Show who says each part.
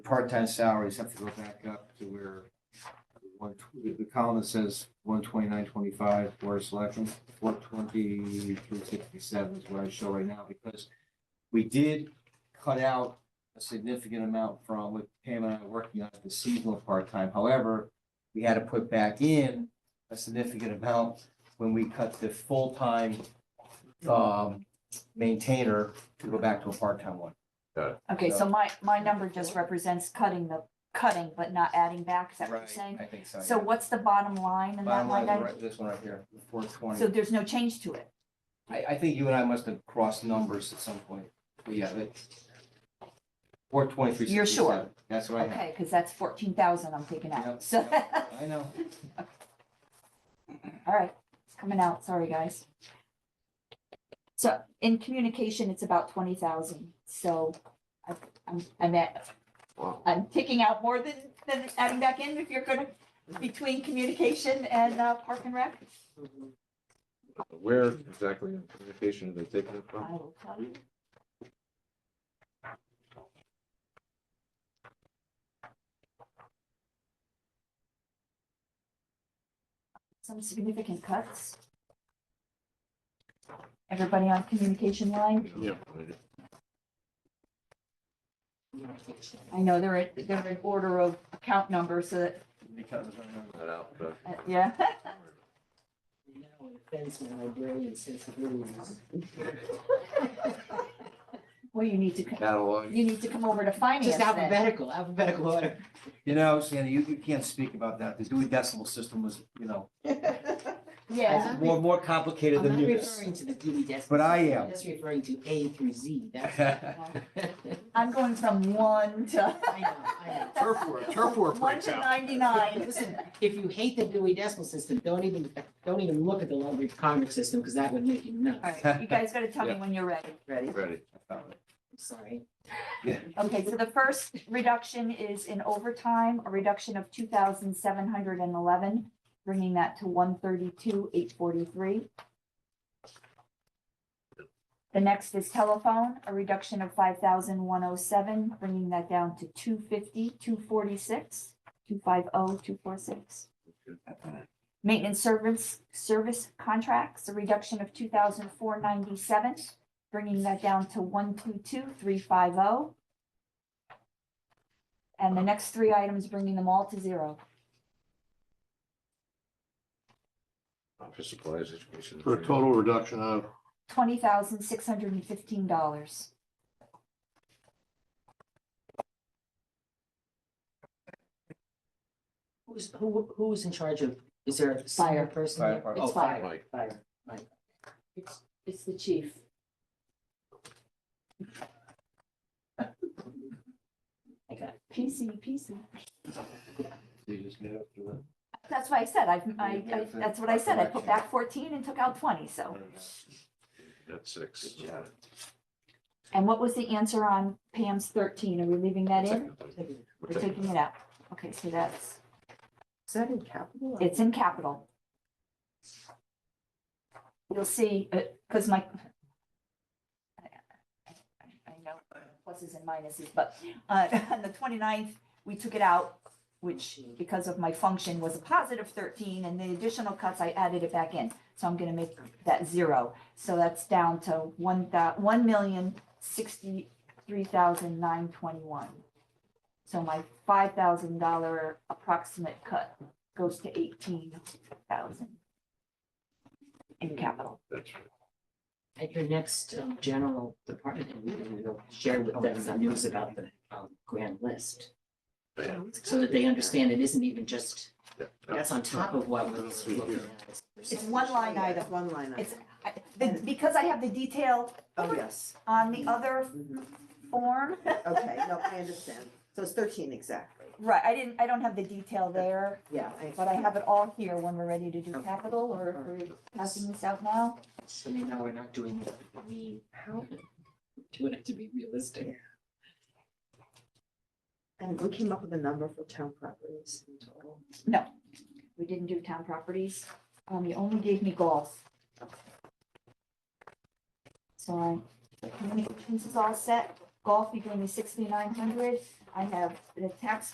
Speaker 1: part-time salaries have to go back up to where one, tw- the- the column that says one twenty-nine twenty-five for selection, four twenty-three sixty-seven is what I show right now, because we did cut out a significant amount from what Pam and I were working on, the seasonal part-time. However, we had to put back in a significant amount when we cut the full-time um, maintainer to go back to a part-time one.
Speaker 2: Okay, so my, my number just represents cutting the, cutting but not adding back, is that what you're saying?
Speaker 1: I think so.
Speaker 2: So
Speaker 1: yeah.
Speaker 2: what's the bottom line in that
Speaker 1: Bottom
Speaker 2: line
Speaker 1: line,
Speaker 2: item?
Speaker 1: right- this one right here, four
Speaker 2: So
Speaker 1: twenty.
Speaker 2: there's no change to it?
Speaker 1: I, I think you and I must have crossed numbers at some point. But yeah, that. Four twenty-three.
Speaker 2: You're sure?
Speaker 1: That's what I have.
Speaker 2: Okay, because that's fourteen thousand I'm taking
Speaker 1: Yep,
Speaker 2: out, so,
Speaker 1: yep, I know.
Speaker 2: all right, it's coming out, sorry, guys. So in communication, it's about twenty thousand, so I- I'm, I'm at, I'm taking out more than, than adding back in if you're gonna, between communication and uh, park and rec.
Speaker 3: Where exactly in communication are they taking it
Speaker 2: I
Speaker 3: from?
Speaker 2: will tell you. Some significant cuts. Everybody on communication line?
Speaker 3: Yeah.
Speaker 2: I know they're, in- they're in order of account numbers, so that,
Speaker 1: Because I remember.
Speaker 3: That out, but-
Speaker 2: uh, yeah.
Speaker 4: No offense, my librarian sensibilities.
Speaker 2: Well, you need to, co-
Speaker 3: Catalog.
Speaker 2: you need to come over to finance
Speaker 4: Just
Speaker 2: then.
Speaker 4: alphabetical, alphabetical order.
Speaker 1: You know, Sandy, you, you can't speak about that. The Dewey Decimal System was, you know,
Speaker 2: Yeah,
Speaker 1: more, more complicated
Speaker 4: I'm
Speaker 1: than
Speaker 4: not
Speaker 1: this.
Speaker 4: referring to the Dewey Decimal.
Speaker 1: But I
Speaker 4: System.
Speaker 1: am.
Speaker 4: I'm just referring to A through Z, that's.
Speaker 2: I'm going from one to.
Speaker 4: I know, I
Speaker 5: Turf war, turf war breaks
Speaker 2: One to
Speaker 5: out.
Speaker 4: know.
Speaker 2: ninety-nine.
Speaker 4: Listen, if you hate the Dewey Decimal System, don't even, don't even look at the Library of Congress system, because that would make you
Speaker 2: All
Speaker 4: nuts.
Speaker 2: right, you guys gotta tell me
Speaker 3: Yeah.
Speaker 2: when you're ready.
Speaker 4: Ready? I'm
Speaker 3: Ready.
Speaker 4: sorry.
Speaker 2: Okay, so the first reduction is in overtime, a reduction of two thousand seven hundred and eleven, bringing that to one thirty-two, eight forty-three. The next is telephone, a reduction of five thousand one oh seven, bringing that down to two fifty, two forty-six, two five oh, two four six. Maintenance service, service contracts, a reduction of two thousand four ninety-seven, bringing that down to one two two, three five oh. And the next three items, bringing them all to zero.
Speaker 3: Office supplies, education.
Speaker 6: For a total reduction of,
Speaker 2: Twenty thousand, six hundred and fifteen dollars.
Speaker 4: Who's, who, who is in charge of, is there a
Speaker 2: Fire.
Speaker 4: senior person?
Speaker 1: Fire
Speaker 4: there?
Speaker 1: department.
Speaker 4: Oh,
Speaker 2: It's fire.
Speaker 3: Mike,
Speaker 4: Fire.
Speaker 2: It's, it's the chief.
Speaker 4: I got it.
Speaker 2: PC, PC.
Speaker 1: You just get up to it.
Speaker 2: That's why I said, I, I, I- that's what I said, I put back fourteen and took out twenty, so.
Speaker 3: That's six.
Speaker 1: Good job.
Speaker 2: And what was the answer on Pam's thirteen? Are we leaving that in?
Speaker 4: Take it.
Speaker 3: We're
Speaker 2: We're
Speaker 3: taking-
Speaker 2: taking it out. Okay, so that's,
Speaker 4: Is that in capital?
Speaker 2: it's in capital. You'll see, because my. I- I know pluses and minuses, but uh, on the 29th, we took it out, which because of my function was a positive thirteen and the additional cuts, I added it back in. So I'm gonna make that zero. So that's down to one thou, one million sixty-three thousand nine twenty-one. So my five thousand dollar approximate cut goes to eighteen thousand in capital.
Speaker 3: That's right.
Speaker 4: At your next um, general department, head meeting, you know, share with them the news about the um, grand list.
Speaker 3: Yeah.
Speaker 4: So that they understand it isn't even just,
Speaker 3: Yeah.
Speaker 4: that's on top of what we're looking at.
Speaker 2: It's one line item.
Speaker 7: One line item.
Speaker 2: It's, I- the- because I have the detail
Speaker 7: Oh, yes.
Speaker 2: on the other
Speaker 7: Mhm.
Speaker 2: form,
Speaker 7: Okay, no, I understand. So it's thirteen exactly.
Speaker 2: right, I didn't, I don't have the detail there.
Speaker 7: Yeah.
Speaker 2: But I have it all here when we're ready to do capital or if we're passing this out now.
Speaker 4: So they know we're not doing, it. we, how, doing it to be realistic.
Speaker 7: And we came up with a number for town properties in total.
Speaker 2: We didn't do town properties. Um, you only gave me golf. So I, communications is all set. golf, you gave me sixty-nine hundred, I have the tax